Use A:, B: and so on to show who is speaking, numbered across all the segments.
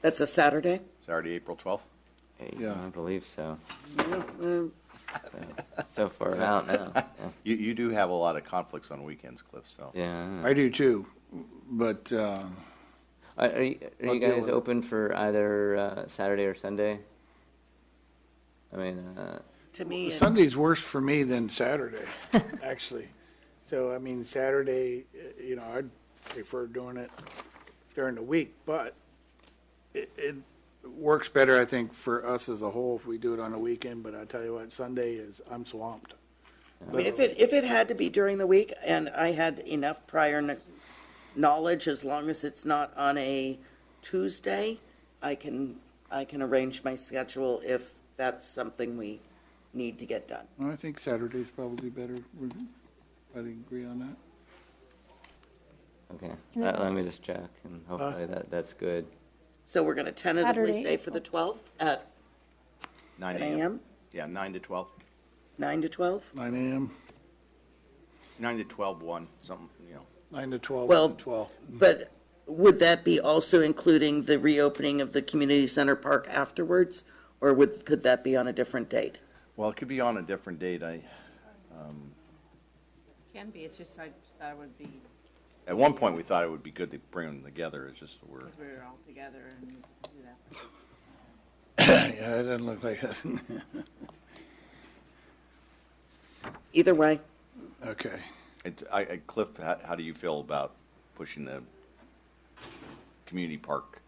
A: That's a Saturday?
B: Saturday, April 12th.
C: Yeah.
D: I believe so.
A: Um,
D: So far out now.
B: You, you do have a lot of conflicts on weekends, Cliff, so.
D: Yeah.
C: I do too, but, uh,
D: Are, are you, are
C: I'll
D: you
C: deal
D: guys
C: with it.
D: open for either uh, Saturday or Sunday? I mean, uh,
A: To me, it-
C: Sunday's worse for me than Saturday, actually.
E: So, I mean, Saturday, uh, you know, I'd prefer doing it during the week, but it, it
C: Works better, I think, for us as a whole if
E: we do it on a weekend, but I tell you what, Sunday is, I'm swamped.
A: I mean, if it, if it had to be during the week and I had enough prior kn- knowledge, as long as it's not on a Tuesday, I can, I can arrange my schedule if that's something we need to get done.
C: I think Saturday's probably better.
E: Mm-hmm.
C: I agree on that.
D: okay. Let, let me just check, and hopefully that, that's good.
A: So we're going to tentatively
F: Saturday,
A: say for the 12th at
B: 9
A: 9 a.m.,
B: Yeah, 9 to 12.
A: 9 to 12?
E: Nine AM,
B: 9 to 12, 1, something, you know.
E: nine to twelve,
A: Well-
E: one to twelve.
A: But would that be also including the reopening of the community center park afterwards? Or would, could that be on a different date?
B: Well, it could be on a different date. I,
G: Can be, it's just I just thought it would be,
B: at one point, we thought it would be good to bring them together. It's just we're,
G: because we were all together and do that.
C: Yeah, it doesn't look like it.
A: Either way,
C: Okay.
B: it's, I, I- Cliff, how, how do you feel about pushing the community park?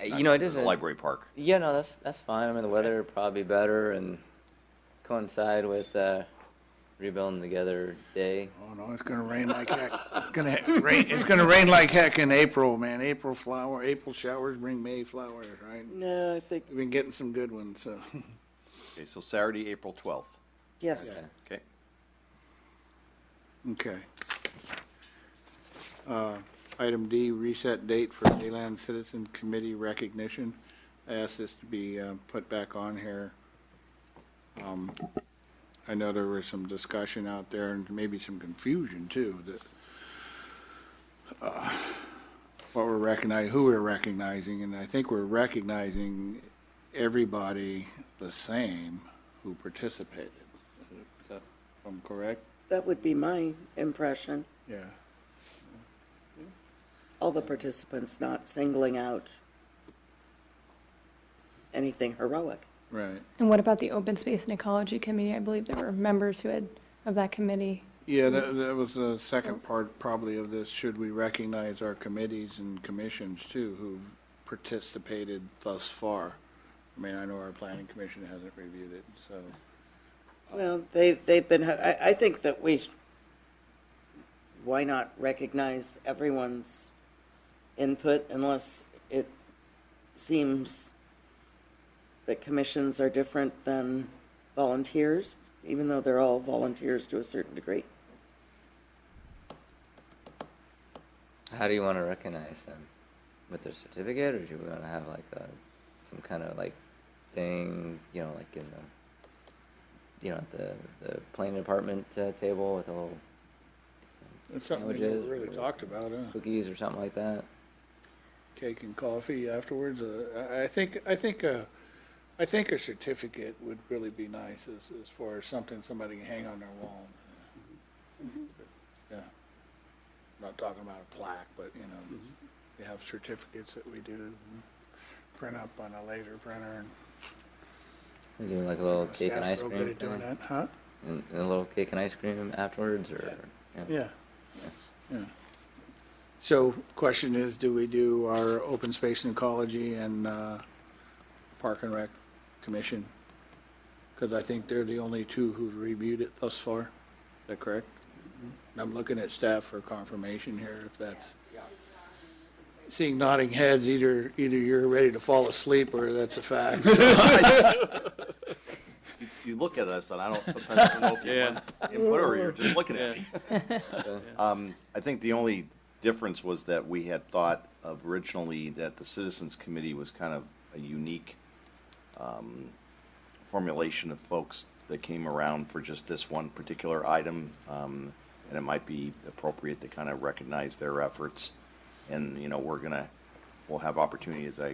D: Uh, You know, it
B: the
D: is a-
B: Library park.
D: Yeah, no, that's that's fine. I mean, the weather will probably be better and coincide with uh, rebuilding together day.
C: Oh, no, it's gonna rain like heck. It's gonna rain, it's gonna rain like heck in April, man. April flower, April showers bring May flowers, right?
A: no, I think,
C: We've been getting some good ones, so.
B: Okay, so Saturday, April 12th.
A: yes.
D: Okay.
B: Okay.
C: Okay. Uh, Item D, reset date for Deland Citizen Committee recognition. I asked this to be uh, put back on here. Um, I know there was some discussion out there and maybe some confusion too, that uh, what we're recognizing, who we're recognizing, and I think we're recognizing everybody the same who participated. Is that- if I'm correct?
A: That would be my impression,
C: Yeah.
A: all the participants not singling out anything heroic.
C: Right.
F: And what about the Open Space and Ecology Committee? I believe there were members who had, of that committee.
C: Yeah, that, that was the second part probably of this. Should we recognize our committees and commissions too who've participated thus far? I mean, I know our planning commission hasn't reviewed it, so.
A: Well, they, they've been, I, I think that we, why not recognize everyone's input unless it seems that commissions are different than volunteers, even though they're all volunteers to a certain degree.
D: How do you want to recognize them? With their certificate, or do you want to have like a, some kind of like thing, you know, like in the, you know, at the the planning department uh, table with a little
C: It's something we never
D: Sandwiches.
C: really talked about, huh?
D: cookies or something like that.
C: Cake and coffee afterwards. Uh, I, I think, I think, uh, I think a certificate would really be nice as, as far as something somebody can hang on their wall.
D: Mm-hmm.
C: Yeah. Not talking about a plaque, but, you know,
D: Mm-hmm.
C: we have certificates that we do and print up on a laser printer and.
D: We do like a little cake and ice
C: Staff's real
D: cream,
C: good at doing
D: thing,
C: that, Huh?
D: and, and a little cake and ice cream afterwards, or yeah.
C: Yeah.
E: Yeah.
C: So question is, do we do our open space and ecology and uh, Park and Rec Commission? Because I think they're the only two who've reviewed it thus far. Is that correct? And I'm looking at staff for confirmation here if that's. Seeing nodding heads, either, either you're ready to fall asleep or that's a fact.
B: You, you look at us, and I don't, sometimes I don't know if you're
H: Yeah.
B: input or you're just looking at
H: Yeah.
B: me. Um, I think the only difference was that we had thought of originally that the Citizens Committee was kind of a unique um, formulation of folks that came around for just this one particular item, um, and it might be appropriate to kind of recognize their efforts. And, you know, we're gonna, we'll have opportunities, I